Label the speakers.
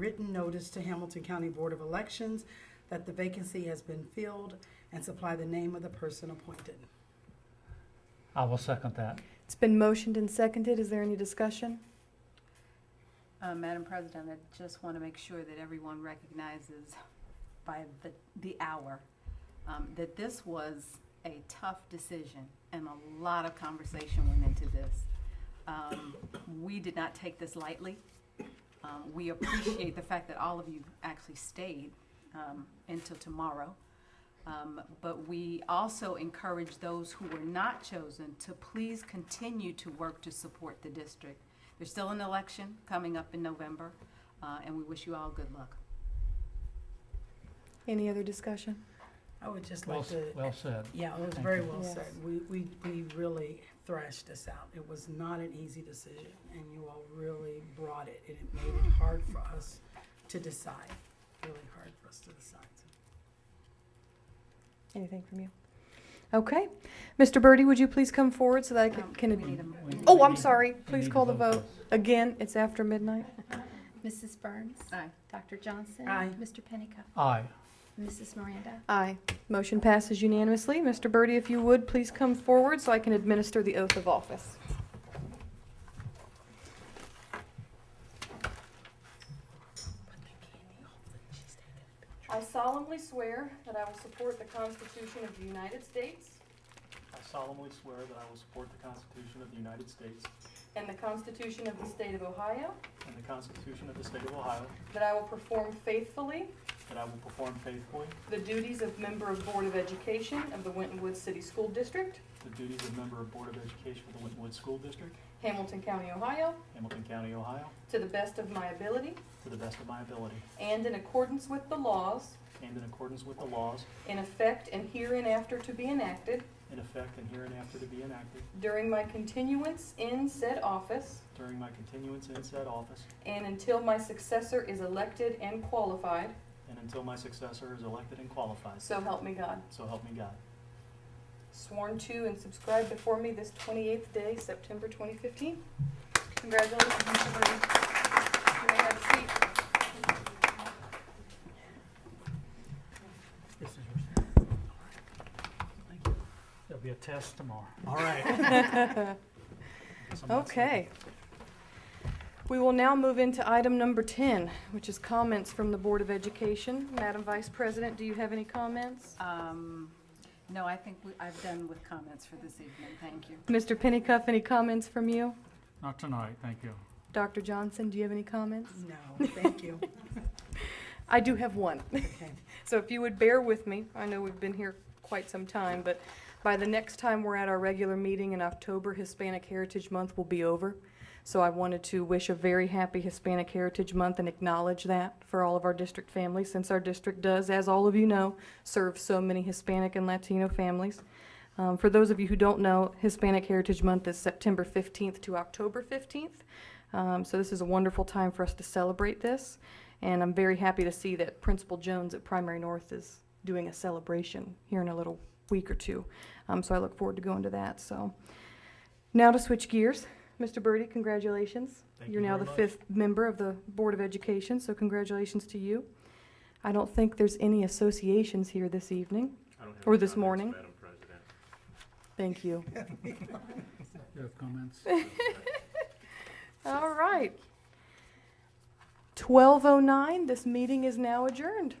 Speaker 1: written notice to Hamilton County Board of Elections that the vacancy has been filled and supply the name of the person appointed.
Speaker 2: I will second that.
Speaker 3: It's been motioned and seconded. Is there any discussion?
Speaker 4: Uh, Madam President, I just want to make sure that everyone recognizes by the, the hour um, that this was a tough decision and a lot of conversation went into this. Um, We did not take this lightly. Um, We appreciate the fact that all of you actually stayed um, until tomorrow. Um, But we also encourage those who were not chosen to please continue to work to support the district. There's still an election coming up in November, uh, and we wish you all good luck.
Speaker 3: Any other discussion?
Speaker 1: I would just
Speaker 2: Well,
Speaker 1: like
Speaker 2: s-
Speaker 1: to,
Speaker 2: well said.
Speaker 1: yeah, it was
Speaker 2: Thank
Speaker 1: very
Speaker 2: you.
Speaker 1: well
Speaker 3: Yes.
Speaker 1: said. We, we, we really thrashed this out. It was not an easy decision, and you all really brought it, and it made it hard for us to decide, really hard for us to decide.
Speaker 3: Anything from you? Okay. Mr. Birdie, would you please come forward so that I can-
Speaker 4: Um, we
Speaker 3: can,
Speaker 4: need a-
Speaker 2: We-
Speaker 4: we need
Speaker 3: oh,
Speaker 4: a-
Speaker 3: I'm sorry.
Speaker 2: We
Speaker 3: Please
Speaker 2: need to
Speaker 3: call the vote.
Speaker 2: this.
Speaker 3: Again, it's after midnight.
Speaker 5: Mrs. Burns.
Speaker 4: Aye.
Speaker 5: Dr. Johnson.
Speaker 1: Aye.
Speaker 5: Mr. Pennicuick.
Speaker 2: Aye.
Speaker 5: Mrs. Miranda.
Speaker 3: Aye. Motion passes unanimously. Mr. Birdie, if you would, please come forward so I can administer the oath of office. I solemnly swear that I will support the Constitution of the United States
Speaker 6: I solemnly swear that I will support the Constitution of the United States
Speaker 3: and the Constitution of the State of Ohio,
Speaker 6: and the Constitution of the State of Ohio,
Speaker 3: that I will perform faithfully
Speaker 6: that I will perform faithfully
Speaker 3: the duties of member of Board of Education of the Winton Woods City School District,
Speaker 6: the duties of member of Board of Education for the Winwood School District,
Speaker 3: Hamilton County, Ohio,
Speaker 6: Hamilton County, Ohio,
Speaker 3: to the best of my ability
Speaker 6: to the best of my ability,
Speaker 3: and in accordance with the laws
Speaker 6: and in accordance with the laws
Speaker 3: in effect and hereinafter to be enacted
Speaker 6: in effect and hereinafter to be enacted
Speaker 3: during my continuance in said office
Speaker 6: during my continuance in said office
Speaker 3: and until my successor is elected and qualified,
Speaker 6: and until my successor is elected and qualified.
Speaker 3: so help me God.
Speaker 6: So help me God.
Speaker 3: Sworn to and subscribed before me this 28th day, September 2015. Congratulations, Mr. Burton. You may have a seat.
Speaker 2: This is There'll be a test tomorrow.
Speaker 6: All right.
Speaker 3: Okay. We will now move into item number 10, which is comments from the Board of Education. Madam Vice President, do you have any comments?
Speaker 4: Um, No, I think we- I've done with comments for this evening. Thank you.
Speaker 3: Mr. Pennicuff, any comments from you?
Speaker 2: Not tonight, thank you.
Speaker 3: Dr. Johnson, do you have any comments?
Speaker 1: No, thank you.
Speaker 3: I do have one.
Speaker 1: Okay.
Speaker 3: So if you would bear with me, I know we've been here quite some time, but by the next time we're at our regular meeting in October, Hispanic Heritage Month will be over. So I wanted to wish a very happy Hispanic Heritage Month and acknowledge that for all of our district families, since our district does, as all of you know, serve so many Hispanic and Latino families. Um, for those of you who don't know, Hispanic Heritage Month is September 15th to October 15th. Um, so this is a wonderful time for us to celebrate this. And I'm very happy to see that Principal Jones at Primary North is doing a celebration here in a little week or two. Um, so I look forward to going to that. So now to switch gears. Mr. Birdie, congratulations.
Speaker 6: Thank
Speaker 3: You're
Speaker 6: you
Speaker 3: now
Speaker 6: very
Speaker 3: the
Speaker 6: much.
Speaker 3: fifth member of the Board of Education, so congratulations to you. I don't think there's any associations here this evening. Or this morning. Thank you.
Speaker 2: You have comments?
Speaker 3: oh All right. 12:09, this meeting is now adjourned.